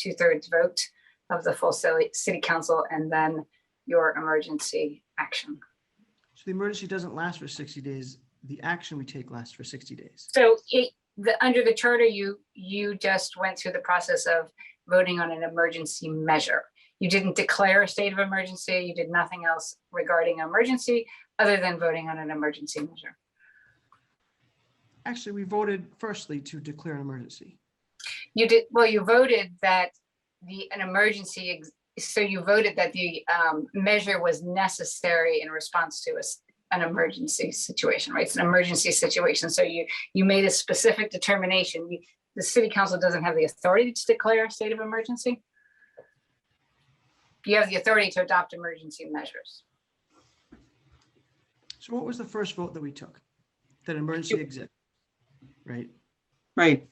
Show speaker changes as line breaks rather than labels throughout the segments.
two-thirds vote of the full city, city council, and then your emergency action.
So the emergency doesn't last for sixty days. The action we take lasts for sixty days.
So it, the, under the charter, you, you just went through the process of voting on an emergency measure. You didn't declare a state of emergency, you did nothing else regarding emergency, other than voting on an emergency measure.
Actually, we voted firstly to declare an emergency.
You did, well, you voted that the, an emergency, ex- so you voted that the um, measure was necessary in response to a s- an emergency situation, right? It's an emergency situation, so you, you made a specific determination. You- The city council doesn't have the authority to declare a state of emergency. You have the authority to adopt emergency measures.
So what was the first vote that we took? That an emergency exists, right?
Right,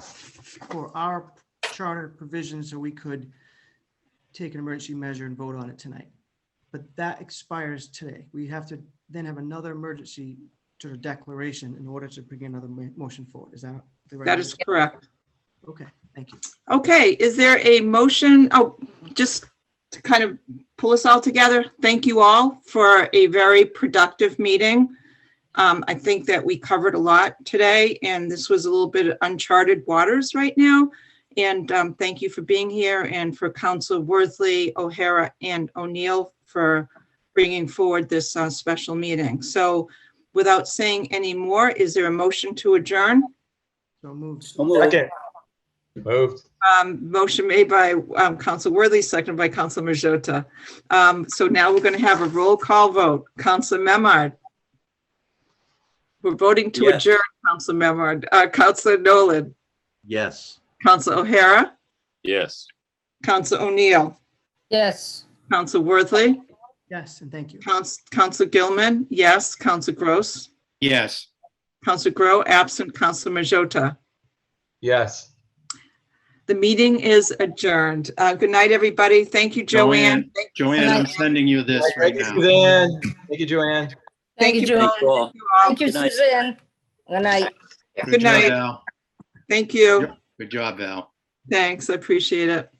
For our charter provisions, so we could take an emergency measure and vote on it tonight. But that expires today. We have to then have another emergency sort of declaration in order to bring another mo- motion forward. Is that the right?
that is correct.
Okay, thank you.
Okay, is there a motion? Oh, just to kind of pull us all together, thank you all for a very productive meeting. Um, I think that we covered a lot today, and this was a little bit uncharted waters right now. And um, thank you for being here and for Council Worthley, O'Hara, and O'Neill for bringing forward this uh, special meeting. So without saying any more, is there a motion to adjourn?
So moved.
Second.
Moved.
Um, motion made by, um, Council Worthy, seconded by Council Majota. Um, so now we're gonna have a roll call vote. Council Memard. We're voting to
Yes.
adjourn, Council Memard, uh, Council Nolan,
Yes.
Council O'Hara,
Yes.
Council O'Neill,
Yes.
Council Worthy,
Yes, and thank you.
Council, Council Gilman, yes, Council Gross,
Yes.
Council Grow, absent, Council Majota.
Yes.
The meeting is adjourned. Uh, good night, everybody. Thank you, Joanne.
Joanne. Joanne, I'm sending you this right
Thank you,
now.
Suzanne. Thank you, Joanne.
Thank you, Joan.
Thank you all.
Thank you, Suzanne. Good night.
Good
job,
night.
Val.
Thank you.
Good job, Val.
Thanks, I appreciate it.